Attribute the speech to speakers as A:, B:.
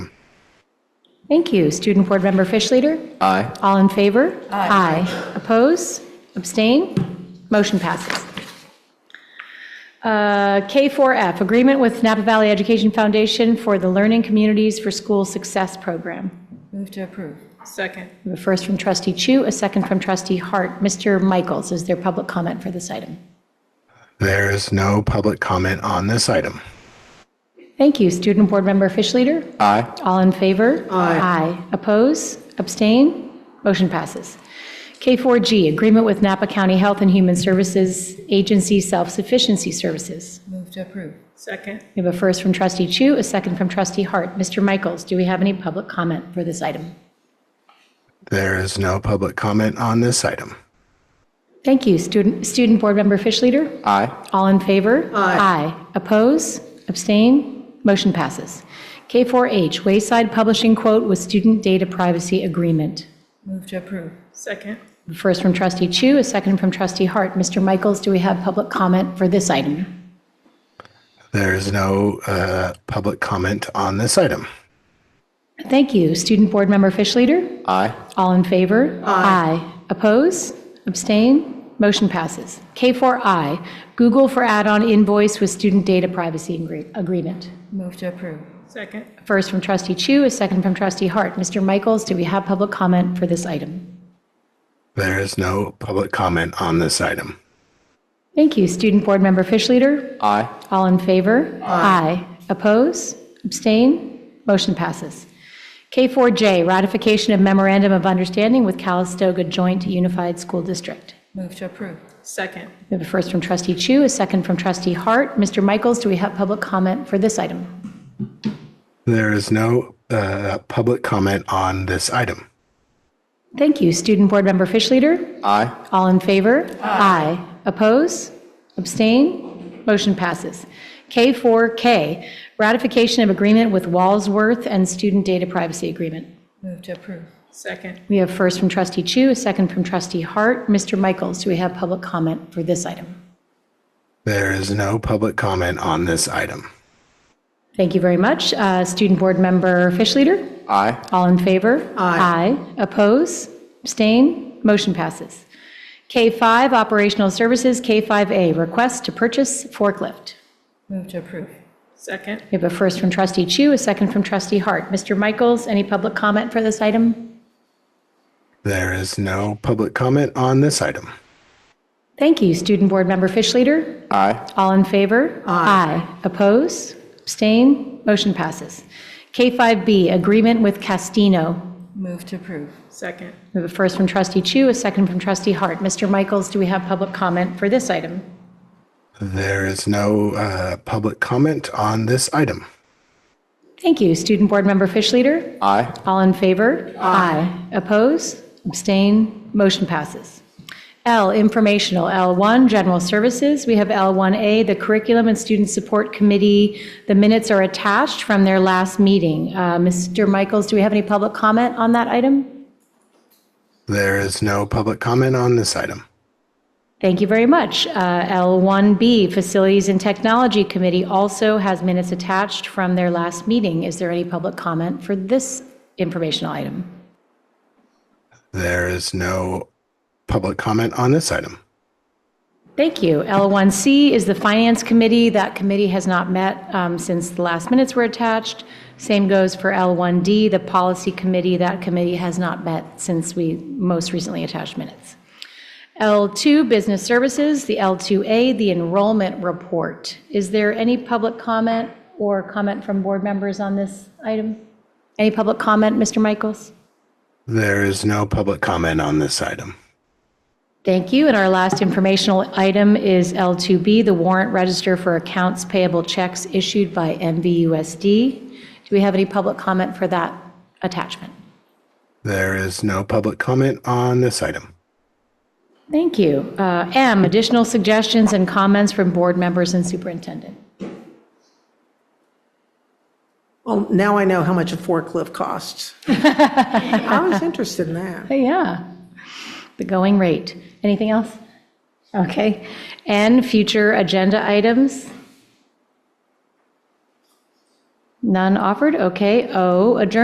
A: Thank you. Student Board Member Fish Leader?
B: Aye.
A: All in favor? Aye. Oppose? Abstain? Motion passes. Uh, K4F, Agreement with Napa Valley Education Foundation for the Learning Communities for School Success Program.
C: Move to approve.
D: Second.
A: The first from trustee Chu, a second from trustee Hart. Mr. Michaels, is there public comment for this item?
E: There is no public comment on this item.
A: Thank you. Student Board Member Fish Leader?
B: Aye.
A: All in favor? Aye. Oppose? Abstain? Motion passes. K4G, Agreement with Napa County Health and Human Services Agency Self-Sufficiency Services.
C: Move to approve.
D: Second.
A: We have a first from trustee Chu, a second from trustee Hart. Mr. Michaels, do we have any public comment for this item?
E: There is no public comment on this item.
A: Thank you. Student, Student Board Member Fish Leader?
B: Aye.
A: All in favor? Aye. Oppose? Abstain? Motion passes. K4H, Wayside Publishing Quote with Student Data Privacy Agreement.
C: Move to approve.
D: Second.
A: First from trustee Chu, a second from trustee Hart. Mr. Michaels, do we have public comment for this item?
E: There is no uh, public comment on this item.
A: Thank you. Student Board Member Fish Leader?
B: Aye.
A: All in favor? Aye. Oppose? Abstain? Motion passes. K4I, Google for add-on invoice with student data privacy agree- agreement.
C: Move to approve.
D: Second.
A: First from trustee Chu, a second from trustee Hart. Mr. Michaels, do we have public comment for this item?
E: There is no public comment on this item.
A: Thank you. Student Board Member Fish Leader?
B: Aye.
A: All in favor? Aye. Oppose? Abstain? Motion passes. K4J, ratification of memorandum of understanding with Calistoga Joint Unified School District.
C: Move to approve.
D: Second.
A: We have a first from trustee Chu, a second from trustee Hart. Mr. Michaels, do we have public comment for this item?
E: There is no uh, public comment on this item.
A: Thank you. Student Board Member Fish Leader?
B: Aye.
A: All in favor? Aye. Oppose? Abstain? Motion passes. K4K, ratification of agreement with Walsworth and Student Data Privacy Agreement.
C: Move to approve.
D: Second.
A: We have first from trustee Chu, a second from trustee Hart. Mr. Michaels, do we have public comment for this item?
E: There is no public comment on this item.
A: Thank you very much. Uh, Student Board Member Fish Leader?
B: Aye.
A: All in favor? Aye. Oppose? Abstain? Motion passes. K5, Operational Services, K5A, Request to Purchase Forklift.
C: Move to approve.
D: Second.
A: We have a first from trustee Chu, a second from trustee Hart. Mr. Michaels, any public comment for this item?
E: There is no public comment on this item.
A: Thank you. Student Board Member Fish Leader?
B: Aye.
A: All in favor? Aye. Oppose? Abstain? Motion passes. K5B, Agreement with Castino.
C: Move to approve.
D: Second.
A: We have a first from trustee Chu, a second from trustee Hart. Mr. Michaels, do we have public comment for this item?
E: There is no uh, public comment on this item.
A: Thank you. Student Board Member Fish Leader?
B: Aye.
A: All in favor? Aye. Oppose? Abstain? Motion passes. L, informational, L1, general services. We have L1A, the Curriculum and Student Support Committee. The minutes are attached from their last meeting. Uh, Mr. Michaels, do we have any public comment on that item?
E: There is no public comment on this item.
A: Thank you very much. Uh, L1B, Facilities and Technology Committee, also has minutes attached from their last meeting. Is there any public comment for this informational item?
E: There is no public comment on this item.
A: Thank you. L1C is the Finance Committee. That committee has not met um, since the last minutes were attached. Same goes for L1D, the Policy Committee. That committee has not met since we most recently attached minutes. L2, Business Services, the L2A, the Enrollment Report. Is there any public comment or comment from board members on this item? Any public comment, Mr. Michaels?
E: There is no public comment on this item.
A: Thank you. And our last informational item is L2B, the warrant register for accounts payable checks issued by MVUSD. Do we have any public comment for that attachment?
E: There is no public comment on this item.
A: Thank you. Uh, M, additional suggestions and comments from board members and superintendent.
F: Well, now I know how much a forklift costs. I was interested in that.
A: Hey, Yeah, the going rate. Anything else? Okay. And future agenda items? None offered? Okay. O, adjournment